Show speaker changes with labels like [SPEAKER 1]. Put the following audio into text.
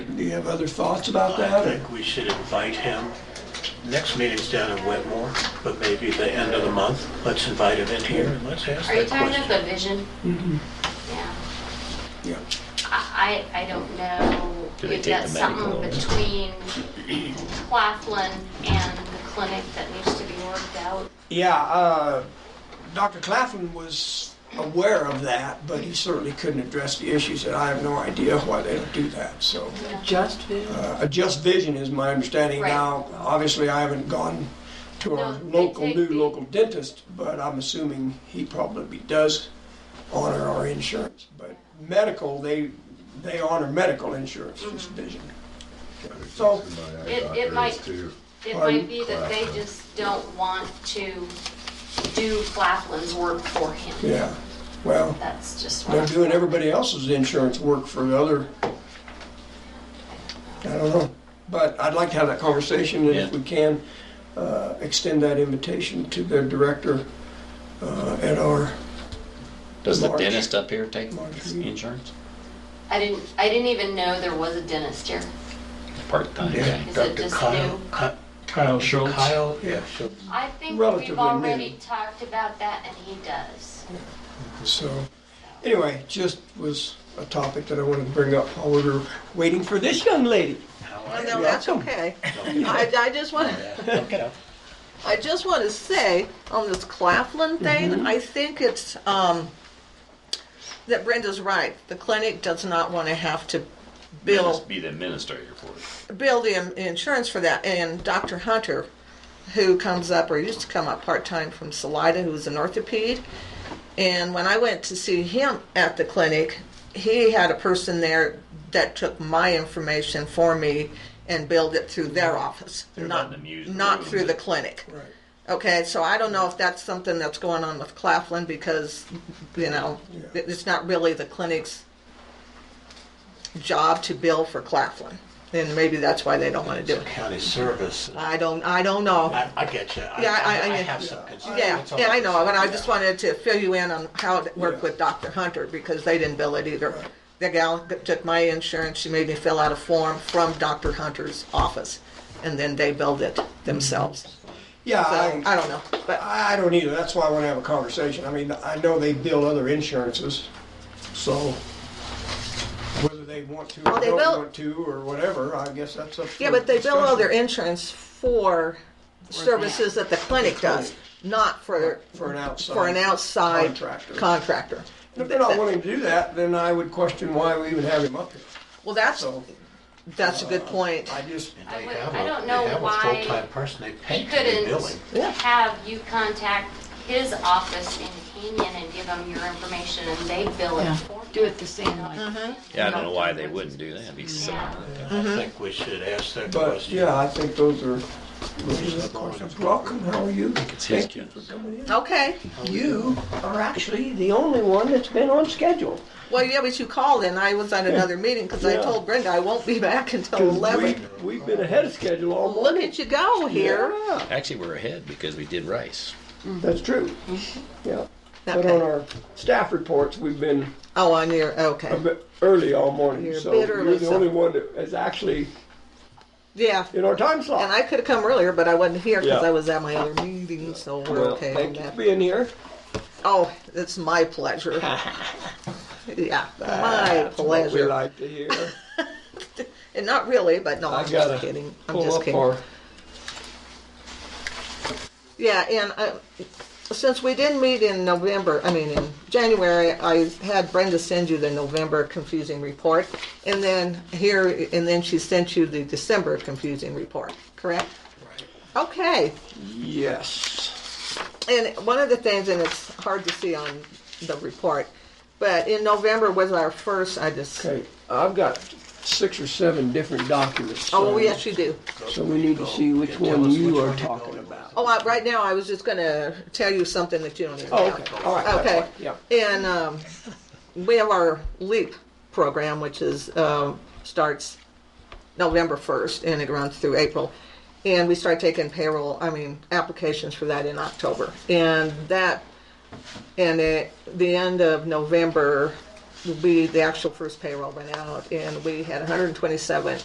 [SPEAKER 1] Do you have other thoughts about
[SPEAKER 2] I
[SPEAKER 1] that? or-
[SPEAKER 2] think we should invite him. Next meeting's down in Wetmore, but maybe the end of the month. Let's invite him in here and let's ask
[SPEAKER 3] Are you
[SPEAKER 2] that
[SPEAKER 3] talking about the
[SPEAKER 2] question.
[SPEAKER 3] vision? Yeah.
[SPEAKER 1] Yeah.
[SPEAKER 3] I, I I don't know
[SPEAKER 4] Do they
[SPEAKER 3] if
[SPEAKER 4] take the
[SPEAKER 3] that's something
[SPEAKER 4] medical?
[SPEAKER 3] between Claflin and the clinic that needs to be worked out.
[SPEAKER 1] Yeah, uh, Dr. Claflin was aware of that, but he certainly couldn't address the issues, and I have no idea why they don't do that, so.
[SPEAKER 5] Just vision.
[SPEAKER 1] Uh, A Just Vision is my understanding
[SPEAKER 3] Right.
[SPEAKER 1] now. Obviously, I haven't gone to our
[SPEAKER 3] No, they
[SPEAKER 1] local,
[SPEAKER 3] take
[SPEAKER 1] new
[SPEAKER 3] the-
[SPEAKER 1] local dentist, but I'm assuming he probably does honor our insurance. But medical, they, they honor medical insurance, just
[SPEAKER 3] Mm-hmm.
[SPEAKER 1] vision. So,
[SPEAKER 3] It- it might- It
[SPEAKER 1] Pardon?
[SPEAKER 3] might be that they
[SPEAKER 6] Claflin.
[SPEAKER 3] just don't want to do Claflin's work for him.
[SPEAKER 1] yeah, well,
[SPEAKER 3] That's just what.
[SPEAKER 1] they're
[SPEAKER 3] I'm-
[SPEAKER 1] doing everybody else's insurance work for the other, I don't know. But I'd like to have that conversation, and if
[SPEAKER 4] Yeah.
[SPEAKER 1] we can, uh, extend that invitation to their director uh, at our
[SPEAKER 4] Does the
[SPEAKER 1] March.
[SPEAKER 4] dentist up here take
[SPEAKER 1] March.
[SPEAKER 4] insurance?
[SPEAKER 3] I didn't, I didn't even know there was a dentist here.
[SPEAKER 4] Part-time,
[SPEAKER 2] Yeah,
[SPEAKER 4] yeah.
[SPEAKER 3] Is it
[SPEAKER 2] Dr.
[SPEAKER 3] just
[SPEAKER 2] Kyle,
[SPEAKER 3] new?
[SPEAKER 2] Ki-
[SPEAKER 7] Kyle Schultz.
[SPEAKER 2] Kyle, yeah, so
[SPEAKER 3] I think
[SPEAKER 1] Relatively
[SPEAKER 3] we've
[SPEAKER 1] new.
[SPEAKER 3] already talked about that and he does.
[SPEAKER 1] So, anyway, just was a topic that I wanted to bring up while we were waiting for this young lady.
[SPEAKER 5] Oh, No, that's
[SPEAKER 1] Welcome.
[SPEAKER 5] okay. I, I just want,
[SPEAKER 2] look it up.
[SPEAKER 5] I just want to say on this Claflin thing, I think it's, um, that Brenda's right. The clinic does not want to have to bill,
[SPEAKER 4] Must be the administrator for it.
[SPEAKER 5] bill the in- insurance for that. And Dr. Hunter, who comes up, or used to come up part-time from Salida, who was an orthoped. And when I went to see him at the clinic, he had a person there that took my information for me and billed it through their office, not,
[SPEAKER 4] letting them use the
[SPEAKER 5] not
[SPEAKER 4] room.
[SPEAKER 5] through the clinic.
[SPEAKER 1] Right.
[SPEAKER 5] Okay, so I don't know if that's something that's going on with Claflin because, you know,
[SPEAKER 1] Yeah.
[SPEAKER 5] it's not really the clinic's job to bill for Claflin. And maybe that's why they don't want to do it.
[SPEAKER 2] County service.
[SPEAKER 5] I don't, I don't know.
[SPEAKER 2] I, I get you. I,
[SPEAKER 5] Yeah, I-
[SPEAKER 2] I
[SPEAKER 5] I-
[SPEAKER 2] have some concerns.
[SPEAKER 5] Yeah,
[SPEAKER 2] That's all
[SPEAKER 5] yeah, I
[SPEAKER 2] I'm
[SPEAKER 5] know, but I just wanted to fill you in on how it worked with Dr. Hunter, because they didn't bill it either. The gal that took my insurance, she made me fill out a form from Dr. Hunter's office, and then they billed it themselves.
[SPEAKER 1] Yeah,
[SPEAKER 5] So, I
[SPEAKER 1] I,
[SPEAKER 5] don't know, but,
[SPEAKER 1] I don't either. That's why I want to have a conversation. I mean, I know they bill other insurances, so whether they want to
[SPEAKER 5] Well,
[SPEAKER 1] or
[SPEAKER 5] they
[SPEAKER 1] don't
[SPEAKER 5] bill-
[SPEAKER 1] want to or whatever, I guess that's up for
[SPEAKER 5] yeah, but they bill all their
[SPEAKER 1] discussion.
[SPEAKER 5] insurance for services that the clinic does, not for,
[SPEAKER 1] For an outside
[SPEAKER 5] for an outside
[SPEAKER 1] contractor.
[SPEAKER 5] contractor.
[SPEAKER 1] If they're not willing to do that, then I would question why we even have him up here.
[SPEAKER 5] Well, that's,
[SPEAKER 1] So uh,
[SPEAKER 5] that's a good point.
[SPEAKER 1] I just,
[SPEAKER 2] And they
[SPEAKER 3] I would-
[SPEAKER 2] have
[SPEAKER 3] I
[SPEAKER 2] a-
[SPEAKER 3] don't know
[SPEAKER 2] They
[SPEAKER 3] why
[SPEAKER 2] have a full-time person, they pay
[SPEAKER 3] He
[SPEAKER 2] for their billing.
[SPEAKER 3] couldn't
[SPEAKER 5] Yeah.
[SPEAKER 3] have you contact his office in Canyon and give them your information and they bill it
[SPEAKER 8] Yeah.
[SPEAKER 3] for
[SPEAKER 8] Do
[SPEAKER 3] you.
[SPEAKER 8] it the same way.
[SPEAKER 4] Yeah, I don't know why they wouldn't do that. It'd be silly.
[SPEAKER 3] Yeah.
[SPEAKER 2] I
[SPEAKER 5] Mm-hmm.
[SPEAKER 2] think we should ask that
[SPEAKER 1] but
[SPEAKER 2] question.
[SPEAKER 1] yeah, I think those are, those are the questions. Welcome, how are you?
[SPEAKER 4] It's his kids.
[SPEAKER 5] Okay,
[SPEAKER 1] You are actually the only one that's been on schedule.
[SPEAKER 5] well, yeah, but you called and I was at another meeting, because I
[SPEAKER 1] Yeah.
[SPEAKER 5] told Brenda I won't be back until eleven.
[SPEAKER 1] We, have been ahead of schedule all
[SPEAKER 5] Look at you go here.
[SPEAKER 1] Yeah,
[SPEAKER 4] Actually, we're ahead because we did rice.
[SPEAKER 1] that's true.
[SPEAKER 5] Mm-hmm.
[SPEAKER 1] Yeah. But on
[SPEAKER 5] Okay.
[SPEAKER 1] our staff reports, we've been
[SPEAKER 5] Oh, on your,
[SPEAKER 1] a
[SPEAKER 5] okay.
[SPEAKER 1] bit early all morning.
[SPEAKER 5] You're a
[SPEAKER 1] so
[SPEAKER 5] bit
[SPEAKER 1] you're
[SPEAKER 5] early,
[SPEAKER 1] the
[SPEAKER 5] so-
[SPEAKER 1] only one that is actually
[SPEAKER 5] Yeah.
[SPEAKER 1] in our time slot.
[SPEAKER 5] And I could have come earlier, but I wasn't here because
[SPEAKER 1] Yeah.
[SPEAKER 5] I was at my other meeting, so we're
[SPEAKER 1] well,
[SPEAKER 5] okay on
[SPEAKER 1] thank you for
[SPEAKER 5] that.
[SPEAKER 1] being here.
[SPEAKER 5] Oh, it's my pleasure. yeah, my
[SPEAKER 1] That's what we
[SPEAKER 5] pleasure.
[SPEAKER 1] like to hear.
[SPEAKER 5] And not really, but no, I'm
[SPEAKER 1] gotta
[SPEAKER 5] just kidding. I'm
[SPEAKER 1] Pull
[SPEAKER 5] just
[SPEAKER 1] up
[SPEAKER 5] kidding.
[SPEAKER 1] our-
[SPEAKER 5] Yeah, and uh, since we didn't meet in November, I mean, in January, I had Brenda send you the November confusing report, and then here, and then she sent you the December confusing report, correct? Right. Okay,
[SPEAKER 1] Yes.
[SPEAKER 5] and one of the things, and it's hard to see on the report, but in November was our first, I just,
[SPEAKER 1] Okay, I've got six or seven different documents.
[SPEAKER 5] oh,
[SPEAKER 1] so-
[SPEAKER 5] yes, you do.
[SPEAKER 1] So we need to see which
[SPEAKER 2] Tell
[SPEAKER 1] one
[SPEAKER 2] us
[SPEAKER 1] you
[SPEAKER 2] which
[SPEAKER 1] are
[SPEAKER 2] one you're
[SPEAKER 1] talking
[SPEAKER 2] going with.
[SPEAKER 1] about.
[SPEAKER 5] Oh, I, right now, I was just gonna tell you something that you don't even know.
[SPEAKER 1] Oh, okay, all right. that's
[SPEAKER 5] Okay.
[SPEAKER 1] fine, Yeah.
[SPEAKER 5] And um, we have our LEAP program, which is, um, starts November 1st and it runs through April. And we start taking payroll, I mean, applications for that in October. And that, and at the end of November will be the actual first payroll went out. And we had 127